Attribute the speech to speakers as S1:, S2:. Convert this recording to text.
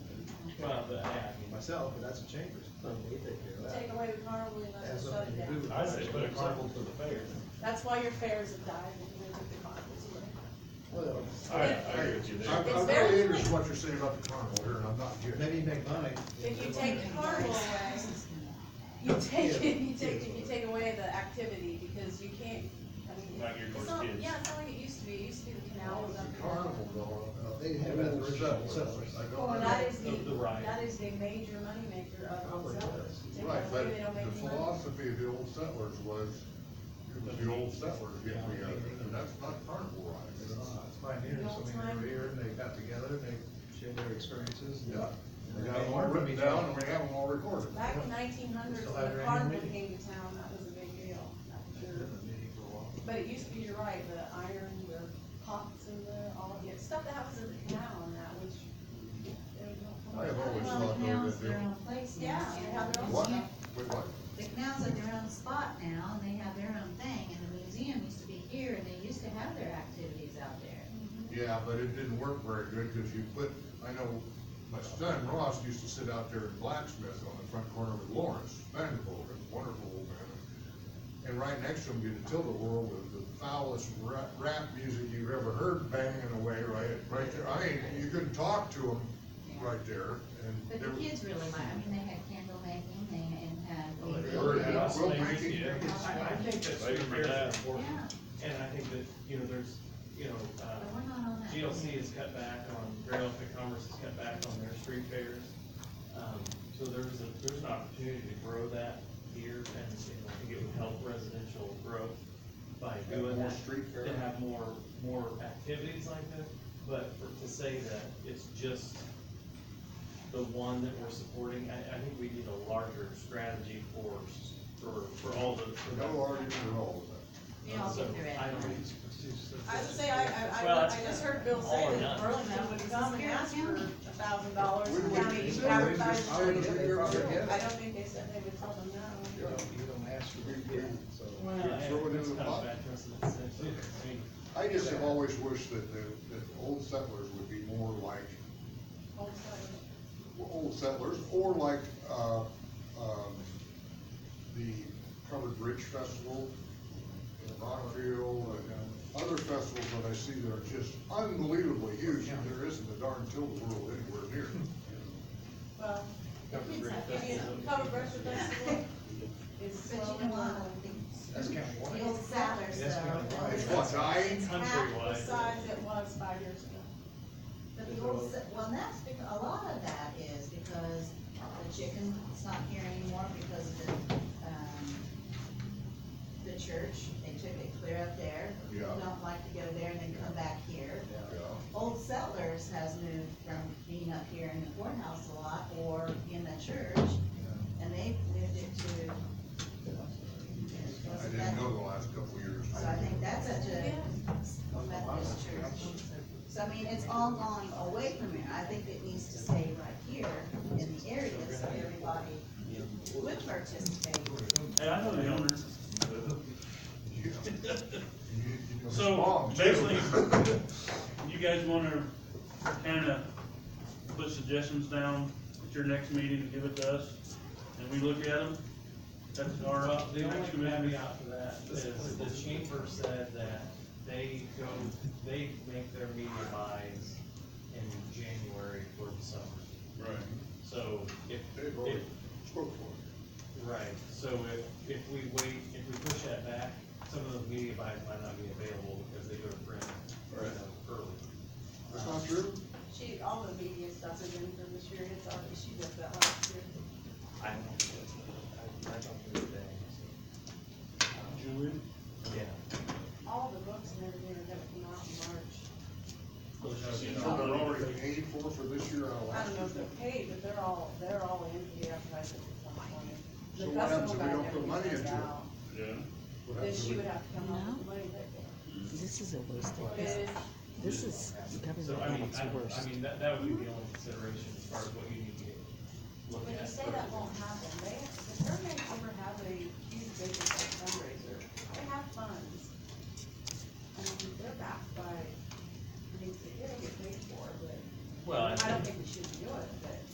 S1: myself, but that's a chambers.
S2: we take care of that.
S3: Take away the carnival and
S1: Has
S3: let's shut
S1: something
S3: it
S1: to do
S3: down.
S1: with. it.
S4: I say put a carnival to the fair.
S3: That's why your fairs have died, because they took the carnivals away.
S2: Well,
S4: I, I agree with you
S5: I,
S4: there.
S3: It's
S5: I'm
S3: very
S5: really interested
S3: clean.
S5: in what you're saying about the carnival here, and I'm not getting it.
S1: Maybe you make money.
S3: If you take the carnival away, you take, it- you take, you take away the activity, because you can't, I mean.
S4: Not geared
S3: it's
S4: towards
S3: not-
S4: kids.
S3: Yeah, it's not like it used to be, it used to be the canal was
S5: The
S3: up.
S5: carnival going
S1: Uh,
S5: on.
S1: They have that for settlers.
S5: I don't
S3: Well, that is the,
S4: The- the riot.
S3: that is the major moneymaker of
S1: Probably
S3: Old Settlers.
S1: does.
S3: Take
S5: Right,
S3: that
S5: but
S3: away, they don't make
S5: the
S3: any money.
S5: philosophy of the old settlers was, it was the old settlers getting together, and that's not carnival
S1: It's
S5: rights.
S1: not, it's not here, so they're here, and they got together, and they shared their experiences. and-
S5: Yeah, we
S1: And
S5: got
S1: they
S5: them all
S1: learned from
S5: written
S1: each
S5: down,
S1: other.
S5: and we have them all recorded.
S3: Back in nineteen hundreds,
S1: Still
S3: when
S1: have
S3: the
S1: your
S3: carnival
S1: annual
S3: came to town, that was a big deal. That was your-
S1: Been a meeting for a while.
S3: But it used to be, you're right, the iron, the pots and the, all of it, stuff that happens in the canal and that, which.
S5: I have always
S6: Well, the
S5: thought they were
S6: canals,
S5: gonna
S6: their
S5: do.
S6: own place now.
S3: Yeah, they have their own
S5: What?
S3: stuff.
S5: Wait, what?
S6: The canals are their own spot now, and they have their own thing, and the museum used to be here, and they used to have their activities out there.
S5: Yeah, but it didn't work very good, cause you put, I know, my son Ross used to sit out there in blacksmith on the front corner with Lawrence Vanderbilt, a wonderful old man. And right next to him, you'd tilt the world with the foulest rap, rap music you've ever heard banging away, right, right there, I mean, you couldn't talk to him right there,
S6: But
S5: and.
S6: the
S5: there was-
S6: kids really like, I mean, they had candle making, they, and
S5: Well,
S6: had.
S5: Oh, they
S6: they
S5: already
S6: built
S5: had
S6: those.
S5: quilt making.
S7: Yeah, I I think that's
S4: Wait
S7: very
S4: for that.
S7: important,
S6: Yeah,
S7: and I think that, you know, there's, you know,
S6: but we're
S7: uh,
S6: not on that.
S7: GLC has cut back on, Grand Elephant Commerce has cut back on their street fairs. Um, So there's a, there's an opportunity to grow that here, and you know, I think it would help residential growth by doing
S5: more
S7: that.
S5: street fair.
S7: To have more, more activities like that, but for- to say that it's just the one that we're supporting, I, I think we need a larger strategy for, s- for, for all the. for that.
S5: No argument at all with that.
S6: We all
S7: So,
S6: get their
S7: I don't-
S6: activities.
S3: I would say, I, I,
S7: Well,
S3: I,
S7: that's-
S3: I just heard Bill
S7: all or
S3: say that
S7: none.
S3: Burlington would come and ask for a thousand dollars
S5: We
S3: and
S5: would
S3: county
S5: consider it.
S3: advertised.
S5: I would
S3: it.
S5: agree with you.
S3: I don't think they said they would tell them no.
S1: You don't- you don't ask for it, yeah, so.
S7: Well,
S5: You're
S7: yeah,
S5: throwing
S7: that's
S5: in the
S7: kind of
S5: pot.
S7: bad precedent set, too. I mean,
S5: I just have always wished that the, that the old settlers would be more like
S3: Old settlers.
S5: old settlers, or like, uh, um, the Covered Bridge Festival, in Rockville, and other festivals that I see that are just unbelievably huge, and there isn't a darn tilt world anywhere near.
S3: Well, the
S7: Covered
S3: kids
S7: Bridge
S3: have, I mean,
S7: Festival.
S3: covered breakfast festival is
S6: But you
S3: slowing
S6: know
S3: down.
S6: what, the,
S1: That's kind of
S6: the
S1: why.
S6: old settlers,
S1: That's
S6: though.
S1: kinda right.
S5: It's what, dying?
S6: It's half
S3: The
S7: Countrywide.
S3: size it was five years ago.
S6: But the old, se- well, and that's, bec- a lot of that is because the chicken's not here anymore because of the, um, the church, they took it clear up there.
S5: Yeah.
S6: People Don't like to go there and then come back here.
S5: Yeah.
S6: Old Settlers has moved from being up here in the courthouse a lot or in the church, and they've moved it to.
S5: I didn't go the last couple of years.
S6: So I think that's such a
S3: Yeah.
S6: Methodist church. So I mean, it's all gone away from here. I think it needs to stay right here in the area so everybody would participate.
S7: And I know the owners.
S5: Yeah. You- you know,
S8: So,
S5: mom, too.
S8: basically- You guys wanna kinda put suggestions down at your next meeting and give it to us, and we look at them? That's our,
S7: Well, the only
S8: next committee.
S7: caveat to that is the chamber said that they go, they make their media buys in January for the summer.
S8: Right.
S7: So if,
S5: They've
S7: if,
S5: already spoke for it.
S7: right, so if, if we wait, if we push that back, some of those media buys might not be available because they go to print, you
S5: Right.
S7: know, early.
S5: That's not true?
S3: She, all the media stuff is in for this year, it's already, she does that last year.
S7: I don't think that's, I, I don't do that.
S8: Julie?
S7: Yeah.
S3: All the books and everything are gonna come out in March.
S5: So they're already paid for for this year, out of
S3: I
S5: last
S3: don't know
S5: year.
S3: if they're paid, but they're all, they're all in the advertising at some point. The
S5: So what happens
S3: festival
S5: if we
S3: guy
S5: don't put
S3: never
S5: money
S3: gets
S5: into it?
S3: out.
S8: Yeah.
S5: What
S3: Then
S5: happens if
S3: she
S5: we-
S3: would have to come up with the money that day.
S9: This is a waste of,
S3: But
S9: this is government
S7: So I
S9: at
S7: mean,
S9: its
S7: I,
S9: worst.
S7: I mean, that, that would be the only consideration as far as